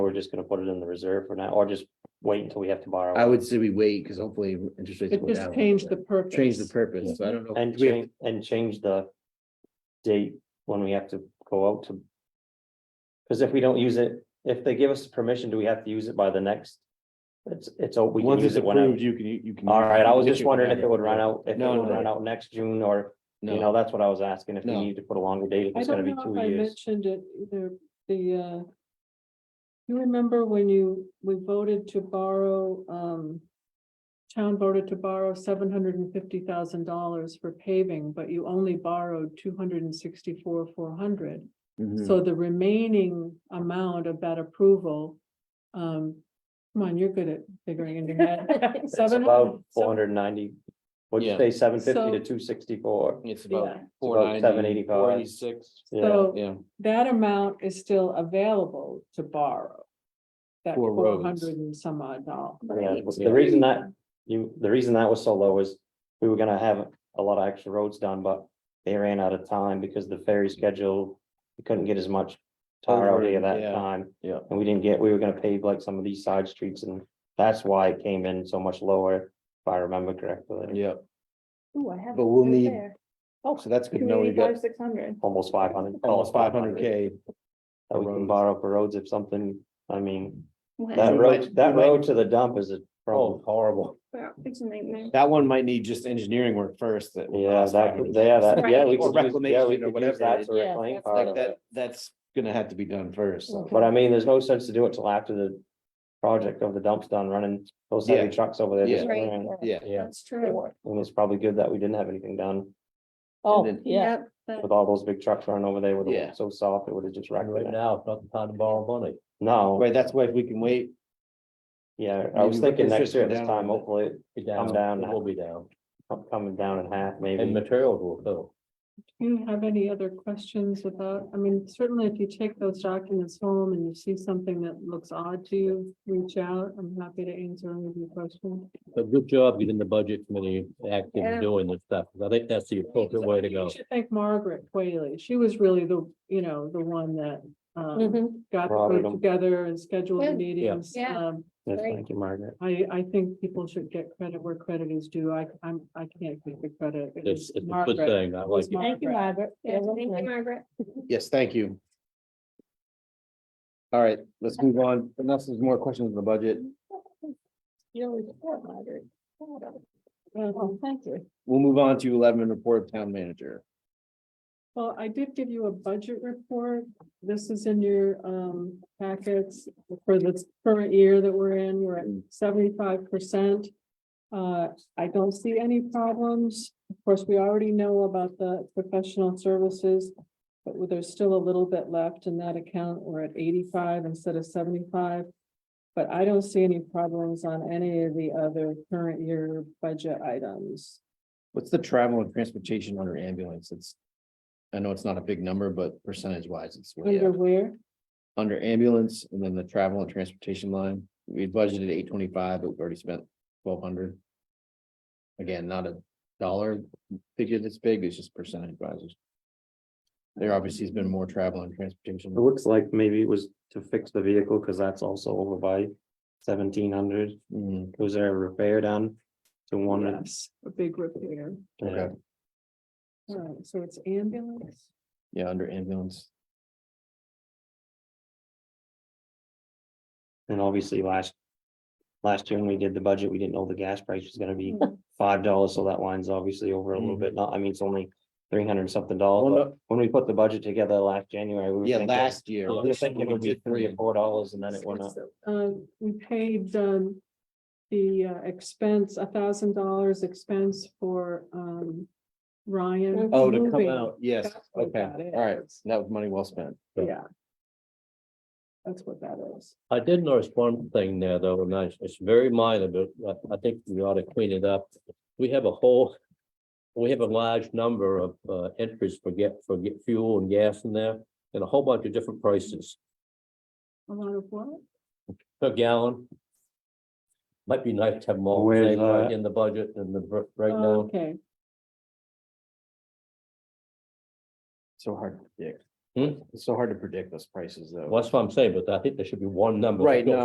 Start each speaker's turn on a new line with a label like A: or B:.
A: We're just gonna put it in the reserve for now, or just wait until we have to borrow.
B: I would say we wait, because hopefully interest rates
C: It
B: go
C: just
B: down.
C: changed the purpose.
B: Change the purpose, so I don't know. if
A: And
B: we have-
A: change, and change the date when we have to go out to. Cause if we don't use it, if they give us permission, do we have to use it by the next? It's, it's, oh, we can
D: Once
A: use
D: it's
A: it whenever.
D: approved, you can, you can.
A: All right, I was just
D: Issue
A: wondering if it
D: whenever.
A: would run out, if it
D: No,
A: would
D: no,
A: run
D: no.
A: out next June or, you know,
B: No,
A: that's what I was asking, if we
B: No.
A: need to put a longer date, if
C: I
A: it's gonna
C: don't
A: be
C: know if
A: two
C: I
A: years.
C: mentioned it, either. the, uh. You remember when you, we voted to borrow, um. Town voted to borrow seven hundred and fifty thousand dollars for paving, but you only borrowed two hundred and sixty-four, four hundred.
B: mhm.
A: Hmm.
C: So the remaining amount of that approval, um, come on, you're good at figuring in your head.
A: It's about four hundred and ninety, what'd you
D: Yeah.
A: say, seven fifty to
C: So-
A: two sixty-four?
D: It's
C: Yeah.
D: about
C: It's
D: four ninety,
A: seven eighty-five.
D: four eighty-six,
A: Yeah,
C: So
D: yeah,
C: that amount is still available to borrow. That
D: For
C: four
D: roads.
C: hundred and some odd dollars.
A: Yeah, the reason that- you, the reason that was so low is we were gonna have a lot of extra roads done, but they ran out of time because the ferry schedule, we couldn't get as much tar out here
D: Overburden,
A: that
D: yeah,
A: time.
D: yeah.
A: And we didn't get, we were gonna pave like some of these side streets and that's why it came in so much lower, if I remember correctly.
D: yeah.
E: Ooh, I have.
B: But we'll
E: right
B: need-
E: there.
B: Oh, so that's good to
E: Two
B: know we got
E: eighty-five, six hundred.
A: Almost five hundred.
B: almost Oh, five hundred K.
A: That we can
D: roads.
A: borrow for roads if something, I mean,
E: Wow,
A: that
B: we
A: road,
B: might-
A: that
B: we might-
A: road to the dump is a
B: Oh.
A: problem.
B: horrible.
E: wow, It's a nightmare.
B: That one might need just engineering work first. that will
A: Yeah,
B: cost
A: that,
B: 500K.
A: yeah, that, yeah, we
B: Or
A: could use, yeah, we
B: reclamation or
A: could use
B: whatever it
A: that
B: is.
A: to
C: Yeah,
A: reclaim
C: that's
A: part
B: Like
A: of it.
B: that, that's gonna have to be done first, so.
A: But I mean, there's no sense to do it till after the project of the dump's done running those heavy
B: Yeah.
A: trucks over there. just
B: Yeah.
E: Right,
A: ran.
B: Yeah.
A: Yeah,
E: That's true.
A: and it's probably good that we didn't have anything done
F: Oh,
B: then-
F: yeah.
E: Yep, that-
A: with all those big trucks running over there with
B: Yeah.
A: it so soft, it would have just wrecked
F: Right
A: it.
F: now, it's not the time to borrow money.
A: No,
B: Right, that's why if we can wait,
A: yeah, I was
B: Maybe
A: thinking
B: it's
A: next
B: just
A: year at this
B: down.
A: time, hopefully it
F: Be
A: Come down.
F: It will be down,
A: come- coming down in half
F: and
A: maybe.
F: materials will fill.
C: Do you have any other questions about, I mean, certainly if you take those documents home and you see something that looks odd to you, reach out. I'm happy to answer any of your questions.
F: But good job getting the budget committee active
E: Yeah.
F: and doing this stuff, 'cause I think that's the appropriate way to
C: You
F: go.
C: should Thank Margaret Quayle. She was really the, you know, the one that um
E: Mhm.
C: got the
A: Robert,
C: group
A: um,
C: together and scheduled
E: Yeah.
C: the
E: Yeah.
C: meetings.
E: Yeah.
C: Um,
A: Yes,
E: Great.
A: Thank you, Margaret.
C: I I think people should get credit where credit is due. I I'm I can't take the credit. It
F: It's,
C: was
F: it's a good
C: Margaret.
F: thing, I like it.
C: Thank you,
E: Margaret. Yeah,
C: Yeah,
E: thank you,
C: lovely.
E: Margaret.
B: yes, thank you. All right, let's move on, unless there's more questions on the budget,
E: You always support Margaret.
C: Um,
E: thank you.
B: we'll move on to eleven report of town manager.
C: Well, I did give you a budget report. This is in your um packets for this current year that we're in. We're at seventy-five percent. Uh, I don't see any problems. Of course, we already know about the professional services. But there's still a little bit left in that account. We're at eighty-five instead of seventy-five. But I don't see any problems on any of the other current year budget items.
B: What's the travel and transportation under ambulance? It's. I know it's not a big number, but percentage wise, it's way
C: Under
B: up.
C: where?
B: Under ambulance and then the travel and transportation line, we had budgeted eight twenty-five, but we already spent twelve hundred. Again, not a dollar figure that's big, it's just percentage wise. There obviously has been more travel and transportation.
A: It looks like maybe it was to fix the vehicle, cause that's also over by seventeen hundred.
B: Mm,
A: Was there a repair done to one? of-
C: Yes, a big repair.
A: Yeah.
B: okay.
C: Alright, so it's ambulance.
B: Yeah, under ambulance.
A: And obviously last. Last year when we did the budget, we didn't know the gas price was gonna be five dollars, so that line's obviously over a
B: Mm.
A: little bit, not, I mean, it's only. Three hundred and something dollars, but when we put the budget together last January, we were
B: Yeah,
A: thinking,
B: last year.
A: we were thinking it would be three or four dollars and then it went up.
C: Uh, we paid, um, the uh, expense, a thousand dollars expense for, um, Ryan.
B: Oh, to come
C: moving.
B: out, yes,
C: That's what
B: okay,
C: that is.
B: all right, that was money well spent.
C: Yeah. That's what that is.
F: I did notice one thing there though, and I- it's very minor, but I, I think we ought to clean it up. We have a whole, we have a large number of uh, entries for get, for get fuel and gas in there, and a whole bunch of different prices
C: A lot of what?
F: per gallon. Might be nice to have them all
A: Where's
F: saved
B: uh,
A: that?
F: in the budget and the br-
C: Oh,
F: breakdown.
C: Okay,
B: So hard to predict.
F: Hmm?
B: It's so hard to predict those prices though.
F: Well, that's what I'm saying, but I think there should be one number.
B: Right, no,